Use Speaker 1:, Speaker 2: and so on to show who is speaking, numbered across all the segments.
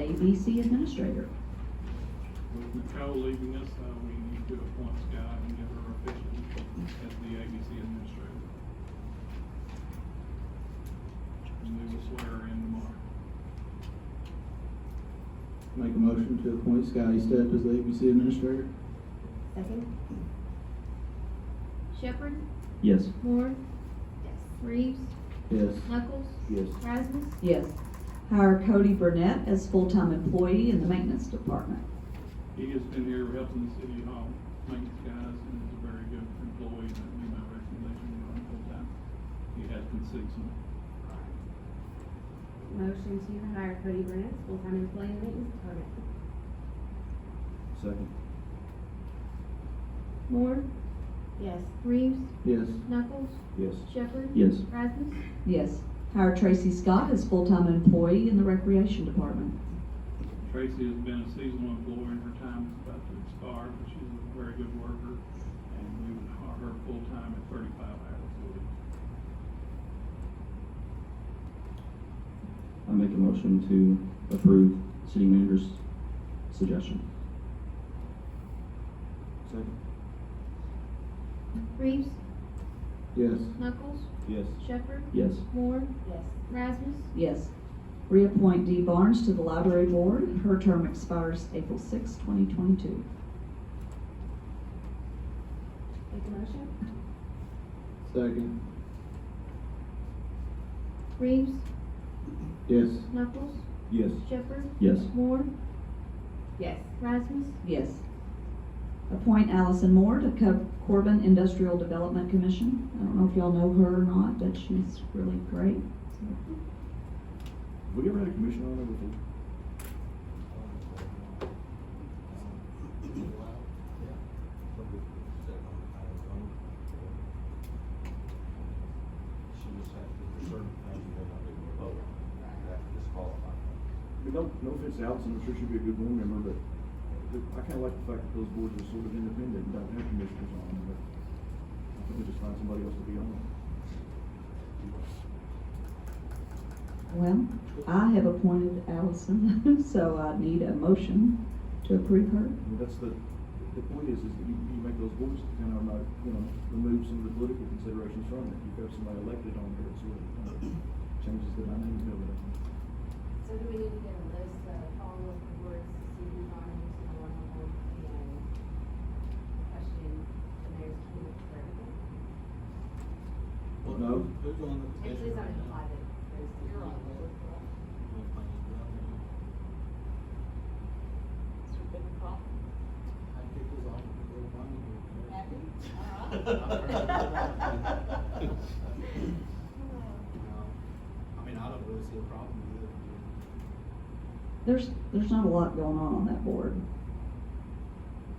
Speaker 1: ABC administrator.
Speaker 2: With Nicole leaving us, uh, we need to appoint Sky and give her officially as the ABC administrator. And we will swear her in tomorrow.
Speaker 3: Make a motion to appoint Scotty Step as the ABC administrator?
Speaker 4: Second.
Speaker 5: Shepherd,
Speaker 3: Yes.
Speaker 5: Moore. Reeves,
Speaker 3: Yes.
Speaker 5: Knuckles,
Speaker 3: Yes.
Speaker 5: Rasmus,
Speaker 1: Yes. Hire Cody Burnett as full-time employee in the maintenance department.
Speaker 2: He has been here helping the city hall, maintenance guys, and is a very good employee, and that'd be my recommendation, to run full-time. He has been seasonal.
Speaker 4: Motion to hire Cody Burnett, full-time employee in the maintenance department.
Speaker 3: Second.
Speaker 5: Moore,
Speaker 4: Yes.
Speaker 5: Reeves,
Speaker 3: Yes.
Speaker 5: Knuckles,
Speaker 3: Yes.
Speaker 5: Shepherd.
Speaker 3: Yes.
Speaker 5: Rasmus,
Speaker 1: Yes. Hire Tracy Scott as full-time employee in the recreation department.
Speaker 2: Tracy has been a seasonal employee, and her time is about to expire, but she's a very good worker, and we would hire her full-time at thirty-five hours a week.
Speaker 6: I make a motion to approve city manager's suggestion.
Speaker 3: Second.
Speaker 5: Reeves,
Speaker 3: Yes.
Speaker 5: Knuckles,
Speaker 3: Yes.
Speaker 5: Shepherd,
Speaker 6: Yes.
Speaker 5: Moore,
Speaker 4: Yes.
Speaker 5: Rasmus,
Speaker 1: Yes. Reappoint Dee Barnes to the library board. Her term expires April 6, 2022.
Speaker 4: Make a motion?
Speaker 3: Second.
Speaker 5: Reeves,
Speaker 3: Yes.
Speaker 5: Knuckles,
Speaker 3: Yes.
Speaker 5: Shepherd,
Speaker 6: Yes.
Speaker 5: Moore,
Speaker 4: Yes.
Speaker 5: Rasmus,
Speaker 1: Yes. Appoint Allison Moore to Co- Corbin Industrial Development Commission. I don't know if y'all know her or not, but she's really great. Mm-hmm.
Speaker 3: We ever had a commission on it before?
Speaker 7: She was had for certain things you had not been able to vote. That disqualified.
Speaker 8: I mean, no, no offense to Allison, I'm sure she'd be a good board member, but I kinda like the fact that those boards are sort of independent and don't have commissioners on them, but I think we just find somebody else to be on them.
Speaker 1: Well, I have appointed Allison, so I need a motion to approve her.
Speaker 8: I mean, that's the, the point is, is that you, you make those boards to kind of, not, you know, remove some of the political considerations from it. You've got somebody elected on there, it sort of uh, changes the dynamic of it.
Speaker 9: So do we need to get a list of all of the boards to see who's on and who's not on the board and question the mayor's committee for everything?
Speaker 3: No.
Speaker 7: Who's on the
Speaker 9: It does
Speaker 7: commission
Speaker 9: not
Speaker 7: right
Speaker 9: imply
Speaker 7: now?
Speaker 9: that there's.
Speaker 7: You're on the board. We'll find out.
Speaker 9: Mr. Bidwell?
Speaker 7: I think it's on the board, one of them.
Speaker 9: Happy?
Speaker 7: No. I mean, I don't really see a problem with it.
Speaker 1: There's, there's not a lot going on on that board,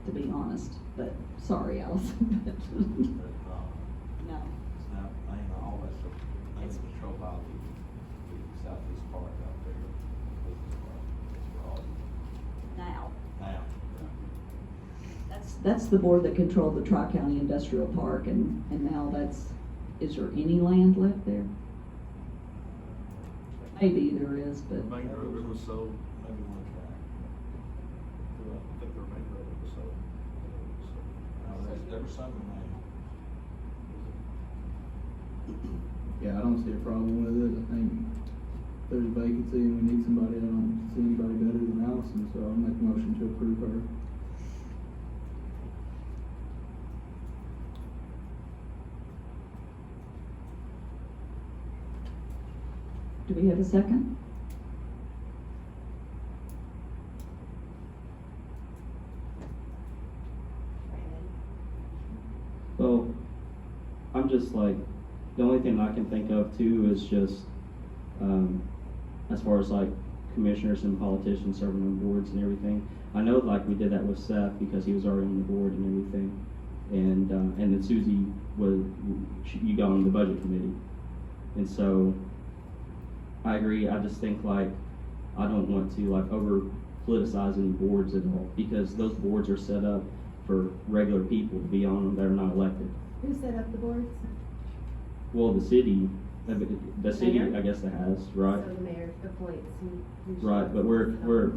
Speaker 1: to be honest, but sorry, Allison.
Speaker 7: But, uh,
Speaker 1: No.
Speaker 7: It's not, I ain't always, I
Speaker 1: It's-
Speaker 7: think control by the, the southeast part out there. business park, It's raw
Speaker 1: Now.
Speaker 7: now.
Speaker 1: That's, that's the board that controlled the Tri-County Industrial Park and, and now that's, is there any land left there? Maybe there is, but.
Speaker 7: Main road was sold. Maybe one track.
Speaker 8: I think their main road was so.
Speaker 7: Now, there's, there was some remaining.
Speaker 3: Yeah, I don't see a problem with it. I think there's a vacancy and we need somebody. I don't see anybody better than Allison, so I'll make a motion to approve her.
Speaker 1: Do we have a second?
Speaker 9: Brandon?
Speaker 6: Well, I'm just like, the only thing I can think of too is just, um, as far as like commissioners and politicians serving on boards and everything. I know like we did that with Seth because he was already on the board and everything. And, uh, and then Susie was, she- you got on the budget committee. And so, I agree, I just think like, I don't want to like over politicize any boards at all because those boards are set up for regular people to be on them that are not elected.
Speaker 4: Who set up the boards?
Speaker 6: Well, the city, the city, I guess, that has, right?
Speaker 9: So the mayor appoints who. who should-
Speaker 6: Right, but we're, we're,